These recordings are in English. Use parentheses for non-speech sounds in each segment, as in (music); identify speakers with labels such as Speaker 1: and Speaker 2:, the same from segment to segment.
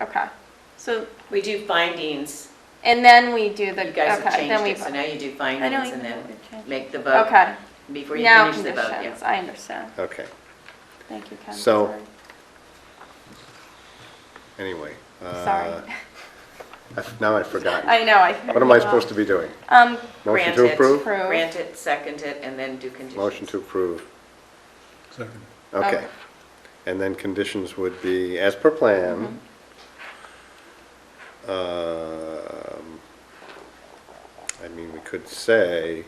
Speaker 1: Okay, so,
Speaker 2: We do findings.
Speaker 1: and then we do the,
Speaker 2: You guys have
Speaker 1: okay, then
Speaker 2: changed
Speaker 1: we
Speaker 2: it, so
Speaker 1: vote.
Speaker 2: now you do
Speaker 1: I know
Speaker 2: findings
Speaker 1: you
Speaker 2: and then
Speaker 1: voted,
Speaker 2: make the vote
Speaker 1: Okay,
Speaker 2: before you
Speaker 1: now
Speaker 2: finish the vote. yeah.
Speaker 1: conditions, I understand.
Speaker 3: Okay,
Speaker 1: Thank you, Ken.
Speaker 3: So-
Speaker 1: Sorry.
Speaker 3: anyway. uh,
Speaker 1: Sorry.
Speaker 3: I've- Now I've
Speaker 1: (laughs)
Speaker 3: forgotten.
Speaker 1: I know, I.
Speaker 3: What am I supposed to be doing?
Speaker 1: Um,
Speaker 3: Motion
Speaker 2: Grant
Speaker 3: to
Speaker 2: it,
Speaker 3: approve?
Speaker 1: Approve.
Speaker 2: Grant it, second it, and then do conditions.
Speaker 3: Motion to approve.
Speaker 4: Second.
Speaker 3: Okay.
Speaker 1: Okay.
Speaker 3: And then conditions would be, as per plan,
Speaker 1: Mm-hmm.
Speaker 3: um, I mean, we could say,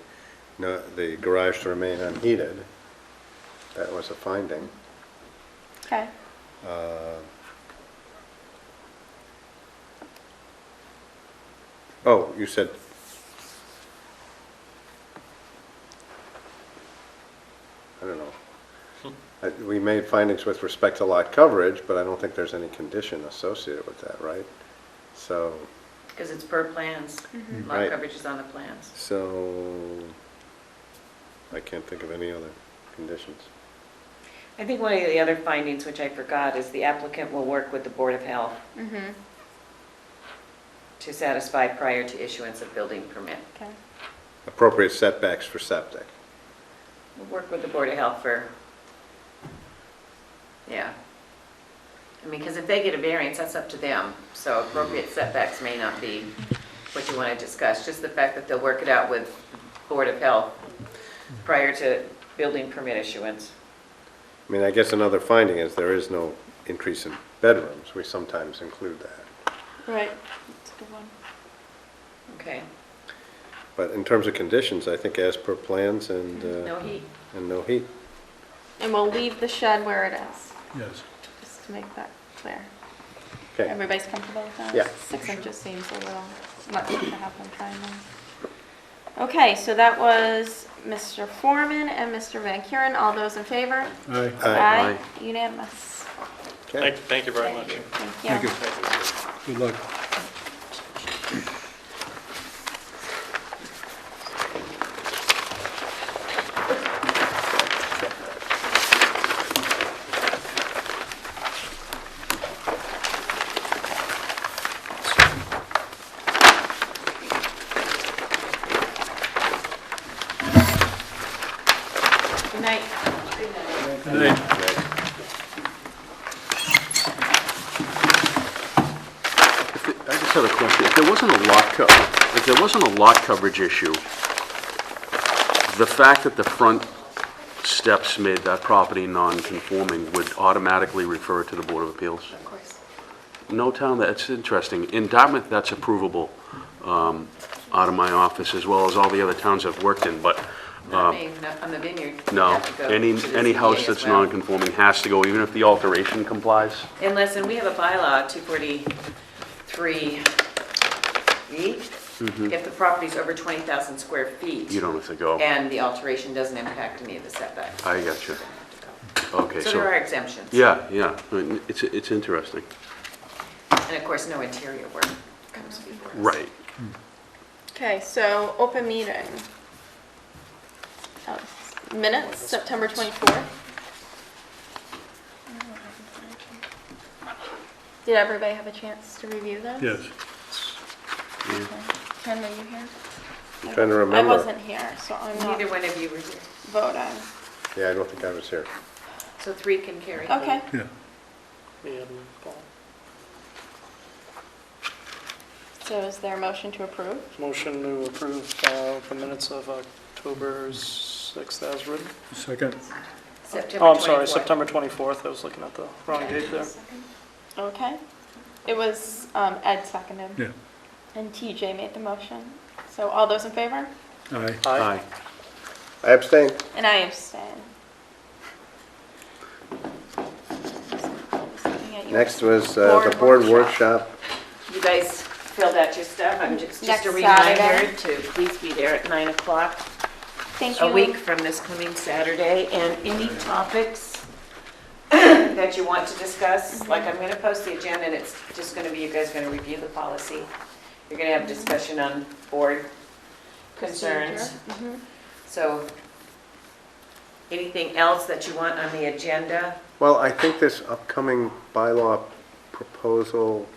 Speaker 3: no, the garage to remain unheated. That was a finding.
Speaker 1: okay,
Speaker 3: Uh, Oh, you said, I don't know. I- We made findings with respect to lot coverage, but I don't think there's any condition associated with that, right? So,
Speaker 2: Because it's per plans.
Speaker 1: Mm-hmm.
Speaker 2: Lot
Speaker 3: Right.
Speaker 2: coverage is on the plans.
Speaker 3: so, I can't think of any other conditions.
Speaker 2: I think one of the other findings, which I forgot, is the applicant will work with the Board of Health
Speaker 1: mm-hmm,
Speaker 2: to satisfy prior to issuance of building permit.
Speaker 1: okay.
Speaker 3: Appropriate setbacks for septic.
Speaker 2: We'll work with the Board of Health for, yeah. I mean, because if they get a variance, that's up to them. So appropriate setbacks may not be what you want to discuss. Just the fact that they'll work it out with Board of Health prior to building permit issuance.
Speaker 3: I mean, I guess another finding is there is no increase in bedrooms. We sometimes include that.
Speaker 1: Right, that's a good one.
Speaker 2: Okay.
Speaker 3: But in terms of conditions, I think as per plans and, uh,
Speaker 2: No heat.
Speaker 3: and no heat.
Speaker 1: And we'll leave the shed where it is,
Speaker 4: Yes.
Speaker 1: just to make that clear.
Speaker 3: Okay,
Speaker 1: Everybody's comfortable with that?
Speaker 3: Yeah.
Speaker 1: Six inches seems a little much to have them finally. Okay, so that was Mr. Foreman and Mr. Van Kuren. All those in favor?
Speaker 4: Aye.
Speaker 3: Aye.
Speaker 1: Unanimous.
Speaker 3: okay.
Speaker 5: Thank, thank you very much.
Speaker 1: Thank
Speaker 4: Thank
Speaker 1: you.
Speaker 4: you. Good luck.
Speaker 2: Good night.
Speaker 4: Good night.
Speaker 6: If it- I just have a question. If there wasn't a lot co, if there wasn't a lot coverage issue, the fact that the front steps made that property non-conforming would automatically refer to the Board of Appeals?
Speaker 2: Of course.
Speaker 6: No town, that's interesting. In Dartmouth, that's approvable um, out of my office, as well as all the other towns I've worked in, but
Speaker 2: Not me, not on the vineyard. You
Speaker 6: no.
Speaker 2: have to go
Speaker 6: Any,
Speaker 2: to the
Speaker 6: any
Speaker 2: ZBA
Speaker 6: house
Speaker 2: as
Speaker 6: that's
Speaker 2: well.
Speaker 6: non-conforming has to go, even if the alteration complies?
Speaker 2: And listen, we have a bylaw, 243E. E. If the property's over 20,000 square feet.
Speaker 6: Mm-hmm. You don't have to go.
Speaker 2: And the alteration doesn't impact any of the setbacks.
Speaker 6: I got you. Okay,
Speaker 2: So
Speaker 6: so...
Speaker 2: there are exemptions.
Speaker 6: Yeah, yeah, I mean, it's, it's interesting.
Speaker 2: And of course, no interior work comes before us.
Speaker 1: Okay, so open meeting. Uh, Minutes, September 24th. Did everybody have a chance to review those?
Speaker 4: Yes.
Speaker 1: Ken, were you here?
Speaker 3: I'm Trying
Speaker 1: I
Speaker 3: to remember.
Speaker 1: wasn't here, so I'm
Speaker 2: Neither
Speaker 1: not
Speaker 2: one of you were here.
Speaker 1: voting.
Speaker 3: Yeah, I don't think I was here.
Speaker 2: So three can carry.
Speaker 1: Okay,
Speaker 4: Yeah.
Speaker 1: so is there a motion to approve?
Speaker 7: Motion to approve uh, the minutes of October 6th as written.
Speaker 4: Second.
Speaker 2: September 24th.
Speaker 7: Oh, I'm sorry, September 24th, I was looking at the wrong date there.
Speaker 1: Okay. It was um, Ed seconded.
Speaker 4: Yeah.
Speaker 1: And TJ made the motion. So all those in favor?
Speaker 4: Aye.
Speaker 7: Aye.
Speaker 6: Aye.
Speaker 3: I abstained.
Speaker 1: And I abstain.
Speaker 3: Next was uh, the
Speaker 1: Board
Speaker 3: board
Speaker 1: workshop.
Speaker 3: workshop.
Speaker 2: You guys filled out your stuff. I'm just, just
Speaker 1: Next
Speaker 2: a reminder
Speaker 1: Saturday.
Speaker 2: to please be there at 9 o'clock.
Speaker 1: Thank you.
Speaker 2: a week from this coming Saturday, and any topics (clears throat) that you want to discuss,
Speaker 1: Mm-hmm.
Speaker 2: like I'm gonna post the agenda, and it's just gonna be, you guys gonna review the policy. You're gonna have discussion on board concerns,
Speaker 1: Mhm.
Speaker 2: so anything else that you want on the agenda?
Speaker 3: Well, I think this upcoming bylaw proposal